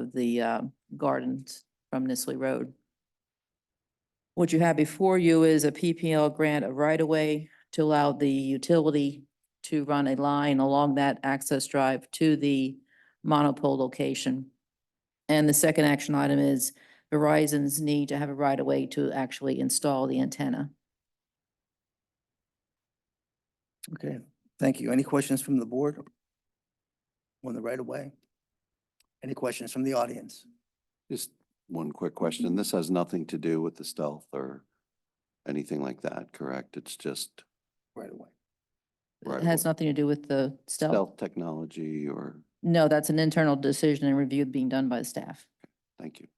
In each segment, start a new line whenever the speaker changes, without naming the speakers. of the uh, gardens from Nisley Road. What you have before you is a PPL grant of right-of-way to allow the utility to run a line along that access drive to the monopole location. And the second action item is Verizon's need to have a right-of-way to actually install the antenna.
Okay, thank you. Any questions from the board? On the right of way? Any questions from the audience?
Just one quick question. This has nothing to do with the stealth or anything like that, correct? It's just
Right away.
It
Right
has
away.
nothing to do with the stealth.
stealth technology or,
No, that's an internal decision and review being done by the staff.
thank you.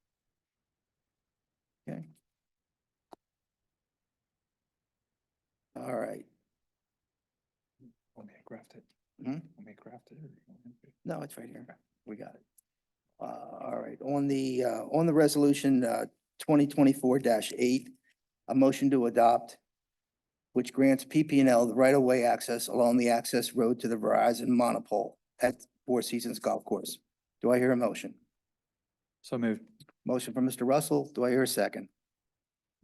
All right.
Want me to craft it?
Hmm?
Want me to craft it? or you want me to-
No, it's right here. We got it. Uh, all right, on the, uh, on the resolution, uh, twenty twenty-four eight, a motion to adopt, which grants PP and L the right-of-way access along the access road to the Verizon monopole at Four Seasons Golf Course. Do I hear a motion?
So moved.
Motion from Mr. Russell. Do I hear a second?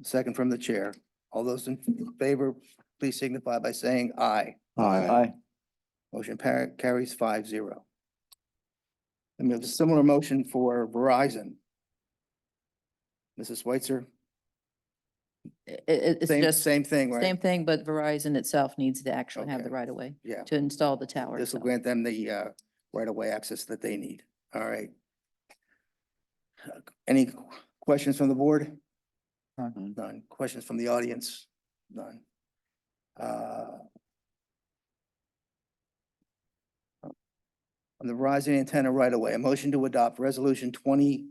Second from the chair. All those in favor, please signify by saying aye. Motion par- carries five zero. And we have a similar motion for Verizon. Mrs. Switzer,
It, it, it's
same,
just
same thing, right?
same thing, but Verizon itself needs to actually have the
Okay.
right-of-way
Yeah,
to install the tower.
this will
itself.
grant them the uh, right-of-way access that they need. All right. Uh, Any qu- questions from the board?
None.
None. Questions from the audience? None. Uh, On the Verizon antenna right away, a motion to adopt resolution twenty,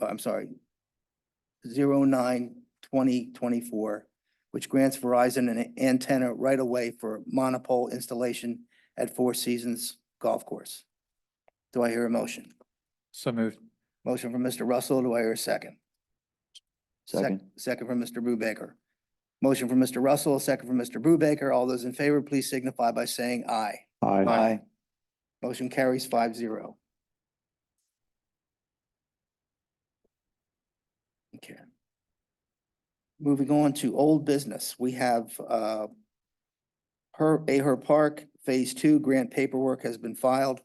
uh, I'm sorry, zero nine twenty twenty-four, which grants Verizon an antenna right away for monopole installation at Four Seasons Golf Course. Do I hear a motion?
So moved.
Motion from Mr. Russell. Do I hear a second? Sec-
Second.
Second from Mr. Brubaker. Motion from Mr. Russell, a second from Mr. Brubaker. All those in favor, please signify by saying aye.
Aye.
Motion carries five zero. Okay. Moving on to old business, we have uh her, Aher Park, Phase Two grant paperwork has been filed.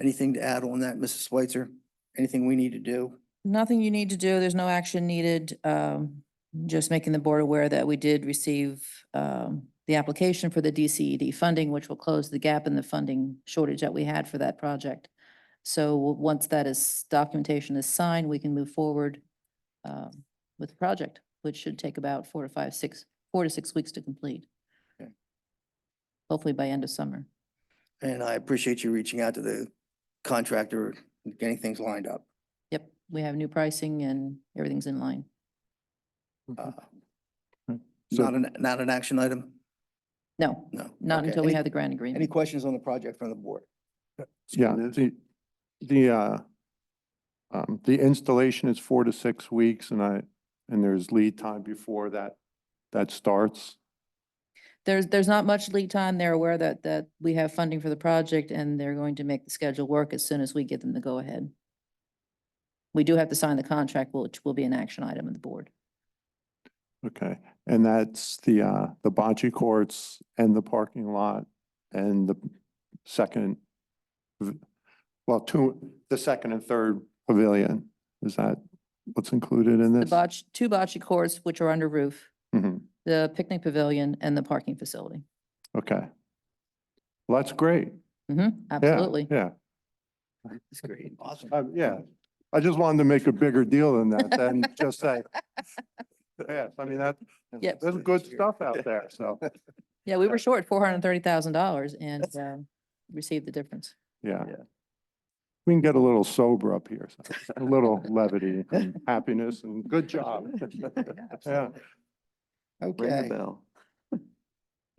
Anything to add on that, Mrs. Switzer? Anything we need to do?
Nothing you need to do. There's no action needed. Um, just making the board aware that we did receive, um, the application for the DCED funding, which will close the gap in the funding shortage that we had for that project. So w- once that is, documentation is signed, we can move forward, um, with the project, which should take about four to five, six, four to six weeks to complete.
Okay.
Hopefully by end of summer.
And I appreciate you reaching out to the contractor, and getting things lined up.
Yep, we have new pricing and everything's in line.
Uh,
Hmm.
Mm-hmm.
Not an, not an action item?
No,
No.
not
Okay.
until we
Any-
have the grant agreement.
Any questions on the project from the board?
Yeah,
Skinner?
the, the, uh, um, the installation is four to six weeks and I, and there's lead time before that, that starts.
There's, there's not much lead time. They're aware that, that we have funding for the project and they're going to make the schedule work as soon as we get them to go ahead. We do have to sign the contract, which will be an action item of the board.
Okay, and that's the, uh, the bocce courts and the parking lot and the second, v- well, two, the second and third pavilion. Is that what's included in
The
this?
botch, two bocce courts, which are under roof,
Mhm,
the picnic pavilion and the parking facility.
Okay. Well, that's great.
hmm
Yeah,
absolutely.
Yeah.
That's great. Awesome.
Uh, yeah, I just wanted to make a bigger deal than that, than just say, yes, I mean, that,
Yep.
there's good stuff out there, so,
Yeah, we were short four hundred and thirty thousand dollars and, um, received the difference.
yeah.
Yeah.
We can get a little sober up here, so a little levity and happiness and good job. Yeah.
Okay,
Ring the
all
bell.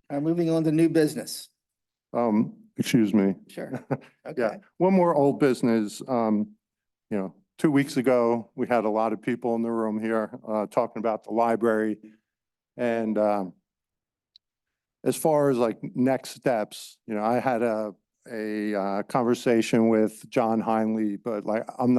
right, moving on to new business.
Um, excuse me.
Sure.
Yeah,
Okay.
one more old business. Um, you know, two weeks ago, we had a lot of people in the room here, uh, talking about the library. And, um, as far as like next steps, you know, I had a, a, uh, conversation with John Heinley, but like, I'm